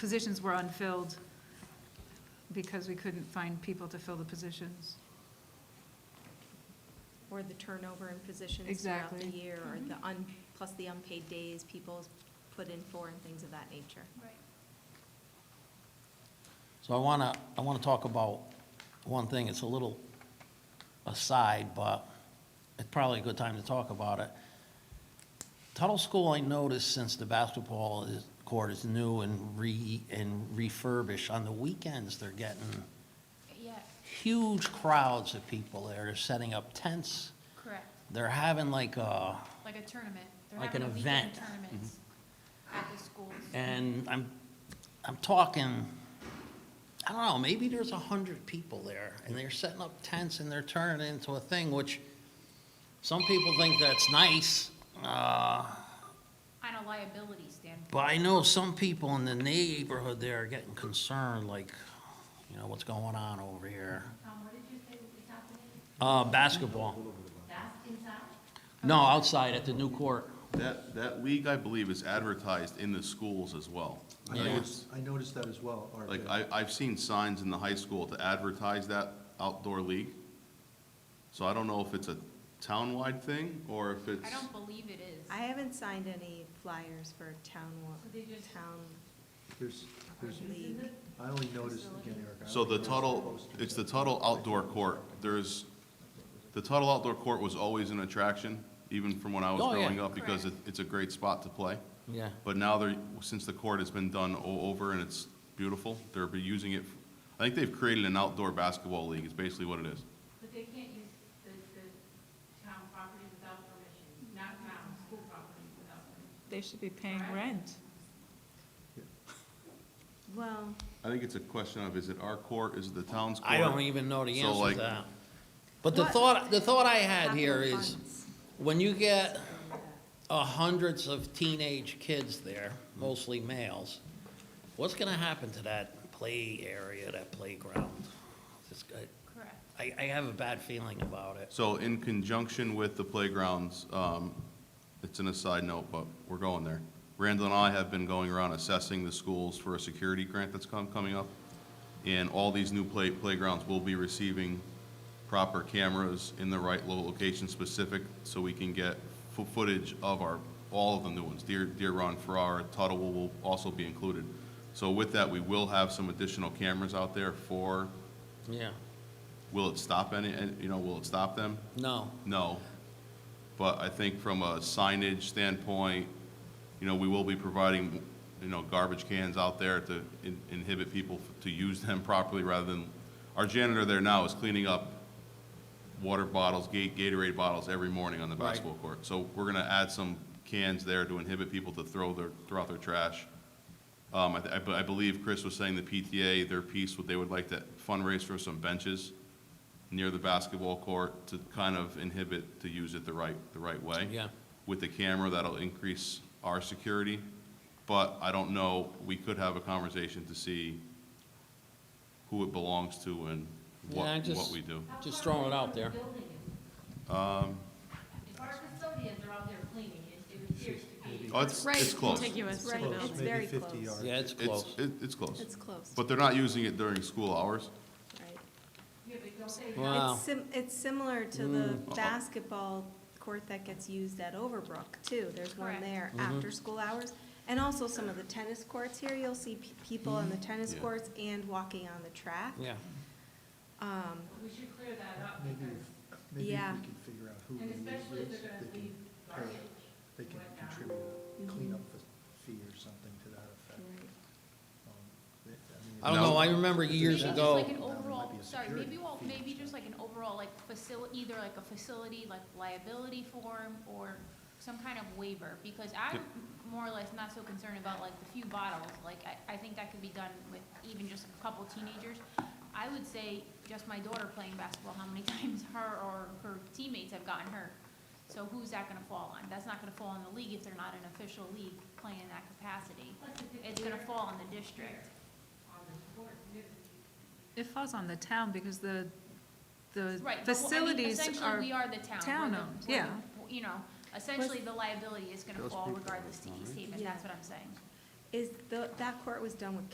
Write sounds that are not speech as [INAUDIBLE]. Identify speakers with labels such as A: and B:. A: positions were unfilled because we couldn't find people to fill the positions.
B: Or the turnover in positions throughout the
A: Exactly.
B: year, or the un, plus the unpaid days people put in for and things of that nature.
C: Right.
D: So I want to, I want to talk about one thing, it's a little aside, but it's probably a good time to talk about it. Tuttle School, I noticed since the basketball is- court is new and re, and refurbished, on the weekends, they're getting
C: Yeah,
D: huge crowds of people there, they're setting up tents,
C: correct.
D: they're having like a,
C: Like a tournament. They're
D: Like
C: having
D: an
C: a weekend
D: event. Mm-hmm.
C: Tournaments at the schools.
D: and I'm, I'm talking, I don't know, maybe there's a hundred people there, and they're setting up tents and they're turning it into a thing, which some people think that's nice, uh,
C: On a liability standpoint.
D: but I know some people in the neighborhood there are getting concerned, like, you know, what's going on over here?
E: Tom, what did you say was happening?
D: Uh, basketball,
E: That's inside?
D: no, outside at the new court.
F: That, that league, I believe, is advertised in the schools as well.
G: I
D: Yeah.
G: noticed, I noticed that as well, Art.
F: Like, I, I've seen signs in the high school to advertise that outdoor league. So I don't know if it's a townwide thing, or if it's,
C: I don't believe it is.
B: I haven't signed any flyers for town, wa-
E: So they just-
B: town
G: There's, there's,
B: league.
G: I only noticed, again, Eric. I
F: so
G: only
F: the
G: noticed
F: Tuttle,
G: posted.
F: it's the Tuttle outdoor court. There's, the Tuttle outdoor court was always an attraction, even from when I was
D: Oh, yeah.
F: growing up, because it,
C: Correct.
F: it's a great spot to play.
D: Yeah.
F: But now they're, since the court has been done o- over and it's beautiful, they're be using it, I think they've created an outdoor basketball league, is basically what it is.
E: But they can't use the, the town property without permission, not town, school property without permission.
H: They should be paying rent.
B: Well,
F: I think it's a question of, is it our court, is it the town's court?
D: I don't even know the
F: So,
D: answer to
F: like-
D: that. But the thought, the thought I had here
B: capital
D: is,
B: funds.
D: when you get uh, hundreds of teenage kids there, mostly males, what's gonna happen to that play area, that playground? It's- I-
C: Correct.
D: I, I have a bad feeling about it.
F: So in conjunction with the playgrounds, um, it's an aside note, but we're going there. Randall and I have been going around assessing the schools for a security grant that's come, coming up. And all these new play, playgrounds will be receiving proper cameras in the right lo- location specific so we can get fo- footage of our, all of the new ones. Deer, Deer Run, Farrar, Tuttle will- will also be included. So with that, we will have some additional cameras out there for,
D: Yeah,
F: will it stop any, and, you know, will it stop them?
D: no.
F: No. But I think from a signage standpoint, you know, we will be providing, you know, garbage cans out there to in- inhibit people to use them [LAUGHS] properly rather than, our janitor there now is cleaning up water bottles, Ga- Gatorade bottles every morning on the
D: Right.
F: basketball court. So we're gonna add some cans there to inhibit people to throw their, throw out their trash. Um, I, th- I be- I believe Chris was saying the PTA, their piece, what they would like to fundraise for some benches near the basketball court to kind of inhibit to use it the right, the right way.
D: Yeah.
F: With the camera, that'll increase our security, but I don't know, we could have a conversation to see who it belongs to and
D: Yeah, I
F: what, what
D: just-
F: we do.
E: How
D: Just
E: far
D: throwing it
E: away
D: out
E: from the
D: there.
E: building
F: Um,
E: is it? If our custodians are out there cleaning, it it appears to be.
F: Oh, it's, it's close.
H: Contiguous to the
B: Right.
H: building.
B: It's very
G: Maybe
B: close.
G: 50 yards.
D: Yeah, it's
F: It's,
D: close.
F: it- it's close.
B: it's close,
F: But they're not using it during school hours.
B: right?
E: Yeah, but don't they
D: Wow. Mm.
B: It's sim, it's similar to the basketball court that gets used at Overbrook too. There's one
C: Correct.
B: there
D: Mm-hmm.
B: after school hours. And also some of the tennis courts here, you'll see pe- people on the tennis
F: Yeah.
B: courts and walking on the track.
D: Mm-hmm. Yeah,
B: Um,
E: We should clear that up
G: Maybe,
E: because,
G: if- maybe
B: Yeah.
G: if we can figure out who the
E: and especially
G: league
E: if
G: is,
E: they're gonna
G: they
E: leave
G: can, pay-
E: garbage.
G: they can
E: whatnot.
G: contribute a cleanup f- fee or something to that effect.
B: Mm-hmm. right.
G: Um, it- mean,
D: I don't
F: No.
D: know, I remember years
C: Maybe
D: ago.
C: just like an
G: That might
C: overall,
G: be a
C: sorry,
G: security
C: maybe well,
G: fee.
C: maybe just like an overall, like facility, either like a facility, like liability form or some kind of waiver, because I'm
F: Yep.
C: more or less not so concerned about like the few bottles, like I, I think that could be done with even just a couple teenagers. I would say just my daughter playing basketball, how many [LAUGHS] times her or her teammates have gotten hurt? So who's that gonna fall on? That's not gonna fall on the league if they're not an official league playing in that capacity. It's gonna fall on the district.
A: It falls on the town because the, the
C: Right. but well, I mean,
A: facilities
C: Essentially,
A: are,
C: we are the town. We're
A: town
C: the-
A: owned,
C: we're the-
A: yeah.
C: You know, essentially, the liability is gonna
G: Those
C: fall E
G: people
C: regardless to East Haven,
B: Yeah.
C: that's what I'm saying.
B: Is, the- that court was done with